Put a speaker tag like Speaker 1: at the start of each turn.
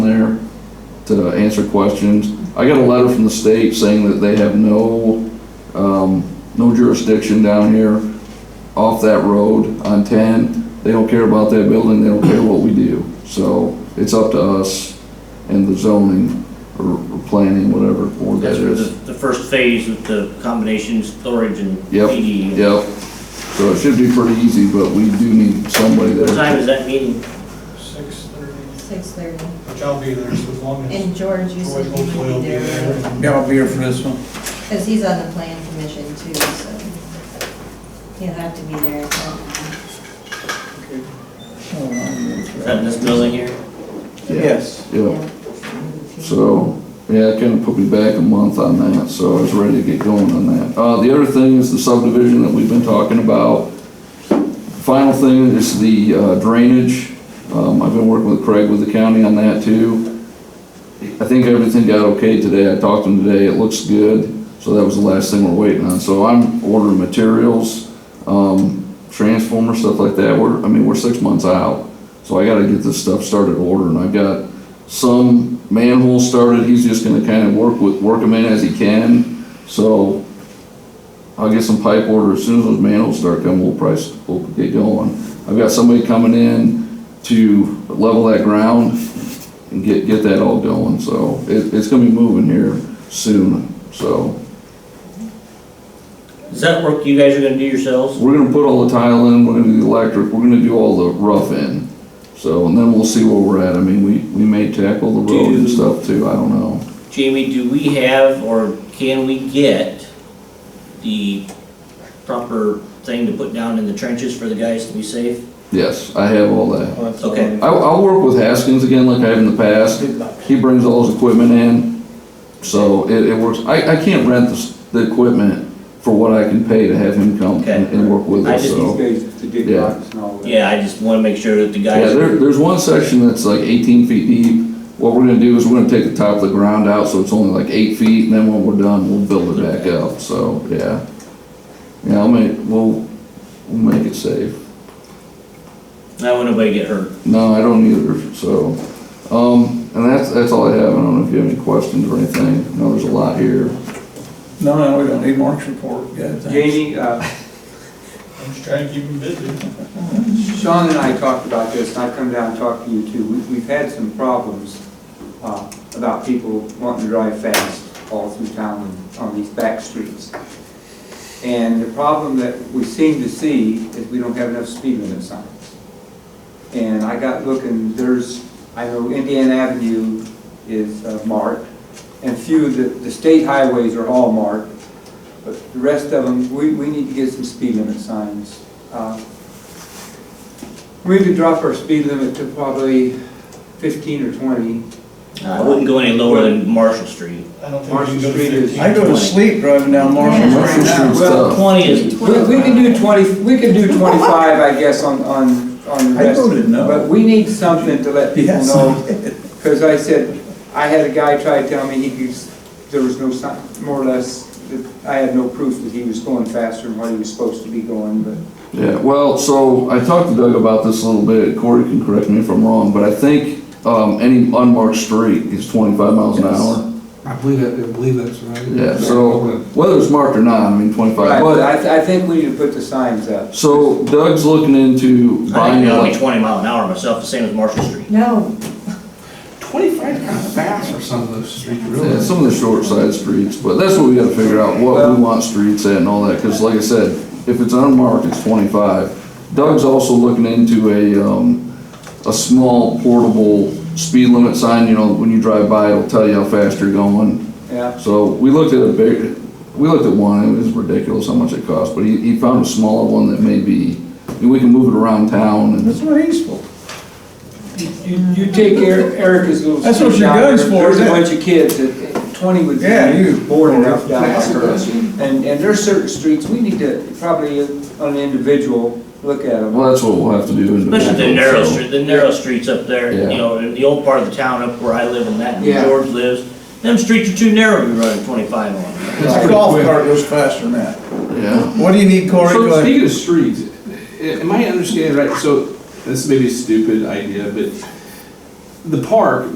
Speaker 1: to answer questions. I got a letter from the state saying that they have no, um, no jurisdiction down here off that road on ten. They don't care about that building, they don't care what we do. So it's up to us and the zoning or or planning, whatever board that
Speaker 2: That's for the,
Speaker 1: is.
Speaker 2: the first phase with the combination storage and
Speaker 1: Yep.
Speaker 2: PD.
Speaker 1: Yep. So it should be pretty easy, but we do need somebody
Speaker 2: What time
Speaker 1: there.
Speaker 2: is that meeting?
Speaker 3: Six thirty,
Speaker 4: Six thirty.
Speaker 3: which I'll be there so as long as
Speaker 4: And George, you
Speaker 3: Troy
Speaker 4: said you
Speaker 3: hopefully will
Speaker 4: would
Speaker 3: be
Speaker 4: be there,
Speaker 3: there.
Speaker 5: Yeah, I'll be here for this one.
Speaker 4: because he's on the plan commission too, so he'll have to be there.
Speaker 2: Is that in this building here?
Speaker 5: Yes.
Speaker 1: Yep. So, yeah, it kind of put me back a month on that, so I was ready to get going on that. Uh, the other thing is the subdivision that we've been talking about. Final thing is the uh, drainage. Um, I've been working with Craig with the county on that too. I think everything got okay today. I talked to him today. It looks good. So that was the last thing we're waiting on. So I'm ordering materials, um, transformer, stuff like that. We're, I mean, we're six months out. So I gotta get this stuff started ordering. I've got some manhole started, he's just gonna kind of work with, work them in as he can. So I'll get some pipe order, as soon as those manholes start coming, we'll price, we'll get going. I've got somebody coming in to level that ground and get, get that all going, so it, it's gonna be moving here soon, so.
Speaker 2: Is that work you guys are gonna do yourselves?
Speaker 1: We're gonna put all the tile in, we're gonna do the electric, we're gonna do all the rough in. So, and then we'll see where we're at, I mean, we, we may tackle the road and
Speaker 2: Do-
Speaker 1: stuff too, I don't know.
Speaker 2: Jamie, do we have or can we get the proper thing to put down in the trenches for the guys to be safe?
Speaker 1: Yes, I have all that.
Speaker 2: Okay.
Speaker 1: I'll, I'll work with Haskins again like I have in the past. He brings all his equipment in, so it, it works. I, I can't rent the, s- the equipment for what I can pay to have him come and, and work with
Speaker 2: Okay. I
Speaker 1: us,
Speaker 2: just-
Speaker 1: so.
Speaker 6: These guys to dig
Speaker 1: Yeah.
Speaker 6: rocks and all that.
Speaker 2: Yeah, I just wanna make sure that the
Speaker 1: Yeah,
Speaker 2: guys.
Speaker 1: there, there's one section that's like eighteen feet deep. What we're gonna do is we're gonna take the top of the ground out, so it's only like eight feet, and then when we're done, we'll build it back up, so, yeah. Yeah, I'll make, we'll, we'll make it safe.
Speaker 2: I don't want nobody to get hurt.
Speaker 1: No, I don't either, so, um, and that's, that's all I have, I don't know if you have any questions or anything, I know there's a lot here.
Speaker 5: No, no, we don't need Mark's report, yeah, thanks.
Speaker 6: Jamie, uh,
Speaker 3: I'm just trying to keep them busy.
Speaker 6: Sean and I talked about this, and I've come down and talked to you too. We- We've had some problems uh, about people wanting to drive fast all through town and on these back streets. And the problem that we seem to see is we don't have enough speed limit signs. And I got looking, there's, I know Indiana Avenue is uh, marked, and few, of the, the state highways are all marked, but the rest of them, we, we need to get some speed limit signs. Uh, we could drop our speed limit to probably fifteen or twenty.
Speaker 2: I wouldn't go any lower than Marshall Street.
Speaker 3: I don't think we
Speaker 6: Marshall
Speaker 3: can go to
Speaker 6: Street is-
Speaker 3: fifteen.
Speaker 5: I go to sleep driving down Marshall
Speaker 4: Yeah.
Speaker 5: right now.
Speaker 6: Well,
Speaker 2: Twenty is,
Speaker 6: We, we can do twenty, we can do twenty-five, I guess, on, on, on the
Speaker 5: I
Speaker 6: rest.
Speaker 5: voted no.
Speaker 6: But we need something to let people
Speaker 5: Yes.
Speaker 6: know, because I said, I had a guy try to tell me he could, there was no sign, more or less, that I had no proof that he was going faster than what he was supposed to be going, but
Speaker 1: Yeah, well, so I talked to Doug about this a little bit, Corey can correct me if I'm wrong, but I think, um, any unmarked street is twenty-five miles an hour.
Speaker 7: I believe that, I believe that's right.
Speaker 1: Yeah, so whether it's marked or not, I mean,
Speaker 6: Right,
Speaker 1: twenty-five,
Speaker 6: but
Speaker 1: but,
Speaker 6: I, th- I think we need to put the signs up.
Speaker 1: so Doug's looking into
Speaker 2: I think
Speaker 1: buying,
Speaker 2: that'll be
Speaker 1: elec-
Speaker 2: twenty mile an hour myself, the same as Marshall Street.
Speaker 4: No,
Speaker 7: Twenty-five kind of fast for some of those streets,
Speaker 1: yeah,
Speaker 7: really.
Speaker 1: some of the short side streets, but that's what we gotta figure out, what
Speaker 6: Well-
Speaker 1: we want streets at and all that, cause like I said, if it's unmarked, it's twenty-five. Doug's also looking into a, um, a small portable speed limit sign, you know, when you drive by, it'll tell you how fast you're going.
Speaker 6: Yeah,
Speaker 1: So we looked at a big, we looked at one, it was ridiculous how much it cost, but he, he found a smaller one that may be, and we can move it around town and.
Speaker 5: That's what he's for.
Speaker 6: you, you take Eric- Erica's little.
Speaker 5: That's what
Speaker 6: street
Speaker 5: your
Speaker 6: down
Speaker 5: gun's
Speaker 6: there,
Speaker 5: for,
Speaker 6: There's a
Speaker 5: isn't it?
Speaker 6: bunch of kids that, twenty would
Speaker 5: Yeah, you-
Speaker 6: be bored enough down
Speaker 7: That's a
Speaker 6: there.
Speaker 7: question.
Speaker 6: And, and there's certain streets, we need to probably, on an individual, look at them.
Speaker 1: Well, that's what we'll have to do.
Speaker 2: Especially the
Speaker 1: individually,
Speaker 2: narrow
Speaker 1: so-
Speaker 2: street, the narrow streets up there, you
Speaker 1: Yeah.
Speaker 2: know, in the old part of the town up where I live and that,
Speaker 6: Yeah.
Speaker 2: and George lives. Them streets are too narrow to be running twenty-five on.
Speaker 5: His golf cart goes faster than that.
Speaker 1: Yeah,
Speaker 5: What do you need, Corey? Go
Speaker 7: So
Speaker 5: ahead.
Speaker 7: speaking of streets, a- am I understanding right, so this may be a stupid idea, but the park